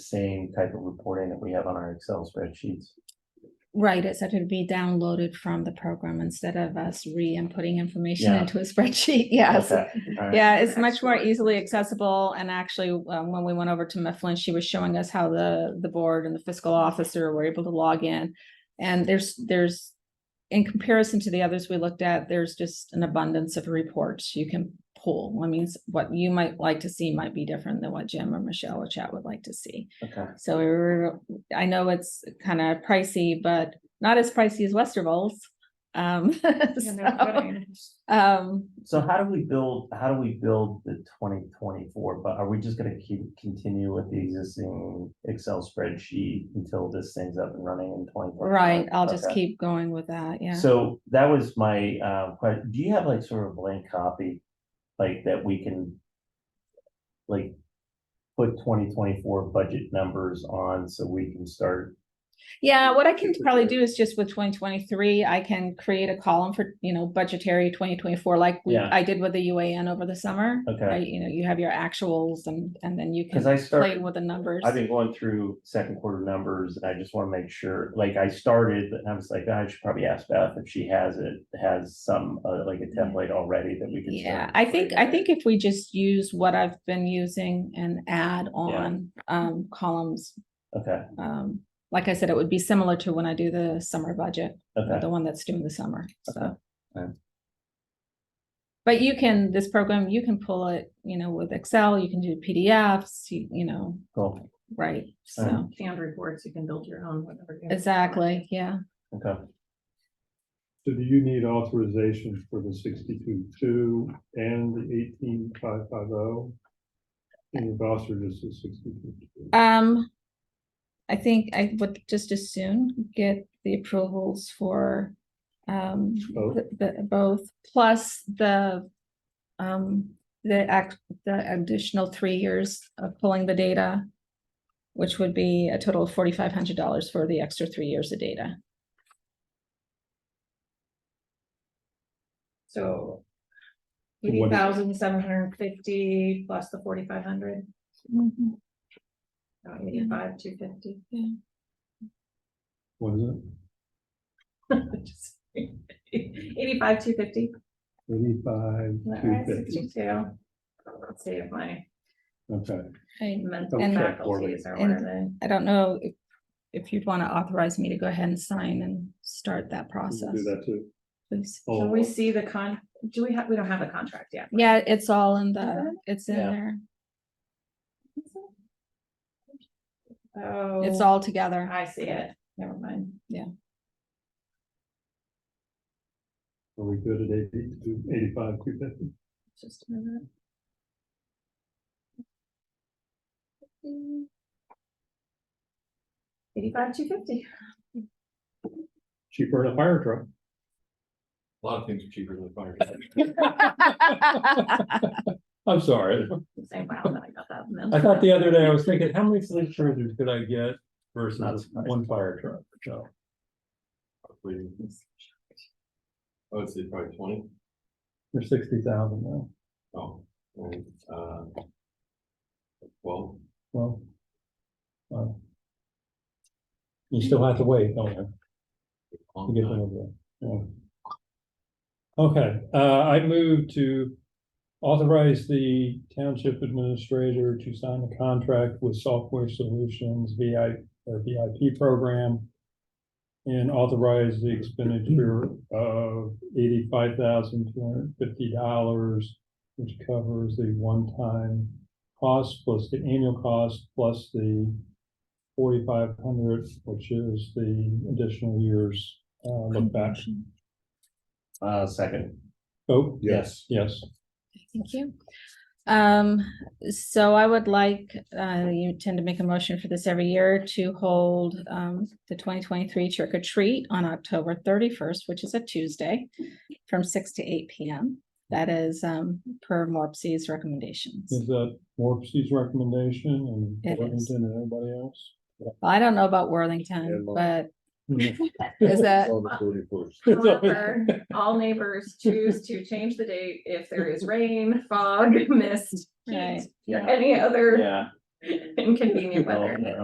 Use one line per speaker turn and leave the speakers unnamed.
same type of reporting that we have on our Excel spreadsheets.
Right, it's that it'd be downloaded from the program instead of us re-inputting information
Yeah.
into a spreadsheet, yes.
Okay, all right.
Yeah, it's much more
Excellent.
easily accessible and actually, um, when we went over to Mifflin, she was showing us how the, the board and the fiscal officer were able to log in. And there's, there's, in comparison to the others we looked at, there's just an abundance of reports you can pull. I mean, what you might like to see might be different than what Jim or Michelle or Chat would like to see.
Okay,
So we we're, I know it's kind of pricey, but not as pricey as Westerville's. Um,
Yeah, no
so,
kidding.
um,
so how do we build, how do we build the twenty twenty-four, but are we just gonna keep, continue with the existing Excel spreadsheet until this thing's up and running in twenty?
right, I'll just keep going with that, yeah.
So that was my, uh, question, do you have like sort of a blank copy, like that we can, like, put twenty twenty-four budget numbers on so we can start?
Yeah, what I can probably do is just with twenty twenty-three, I can create a column for, you know, budgetary twenty twenty-four, like we-
Yeah.
I did with the UAN over the summer.
Okay.
Right, you know, you have your actuals and, and then you
Cause
can
I
play
start,
with the numbers.
I've been going through second quarter numbers and I just wanna make sure, like I started, and I was like, "Ah, I should probably ask Beth if she has it, has some, uh, like a template already that we can. start
Yeah, I think, I
incorporating.
think if we just use what I've been using and add on, um, columns,
Okay,
um, like I said, it would be similar to when I do the summer budget,
okay,
the one that's doing the summer, so.
Okay.
But you can, this program, you can pull it, you know, with Excel, you can do PDFs, you, you know,
cool,
right, so,
Um,
Canned reports, you can build your own, whatever. you-
exactly, yeah.
okay.
So do you need authorization for the sixty-two two and the eighteen five five oh? And your boss or just the sixty-two?
Um, I think I would just as soon get the approvals for, um,
Both?
the, the- both, plus the, um, the act, the additional three years of pulling the data, which would be a total of forty-five hundred dollars for the extra three years of data.
So.
So what
Eighty
is-
thousand seven hundred and fifty plus the forty-five hundred,
Mm-hmm.
eighty-five, two fifty.
What is it?
Eighty-five, two fifty.
Eighty-five two fifty.
Sixty-two. Let's see if my
Okay,
I,
mental
And-
faculties are
And-
where they.
I don't know if, if you'd want to authorize me to go ahead and sign and start that
we
process,
can do that too.
please.
Oh,
Can we see the con, do we have, we don't have a contract yet.
Yeah, it's all in the,
Uh-huh.
that?
it's in
Yeah.
there,
Oh.
it's all together.
I see it, never mind.
Are we good at eighty-two, eighty-five two fifty?
Just a minute. Eighty-five, two fifty.
Cheaper than a fire truck.
A lot of things are cheaper than fire.
I'm sorry.
Say, wow, then I got that.
I
mental.
thought the other day, I was thinking, how many sleep chargers could I get
Not
versus
surprised.
one fire truck? So
I would say probably twenty.
they're sixty thousand now.
Oh, and, uh. Well,
Well. well, You still have to wait, don't you? to get
on
them over there. Okay, uh, I move to authorize the township administrator to sign a contract with Software Solutions VI, or VIP program. And authorize the expenditure of eighty-five thousand two hundred and fifty dollars, which covers the one-time cost plus the annual cost plus the forty-five hundred, which is the additional years uh, look back.
Uh, second,
Oh,
yes,
yes.
Thank you. Um, so I would like, uh, you tend to make a motion for this every year to hold, um, the twenty twenty-three trick or treat on October thirty-first, which is a Tuesday, from six to eight P M. That is, um, per Morpsey's recommendations.
Is that Morpsey's recommendation
It
and
is.
Worthington and everybody else?
I don't know about Worthington, but is that,
However, all neighbors choose to change the date if there is rain, fog, mist,
Right.
heat, or any other
yeah.
inconvenient
Well,
weather.
yeah.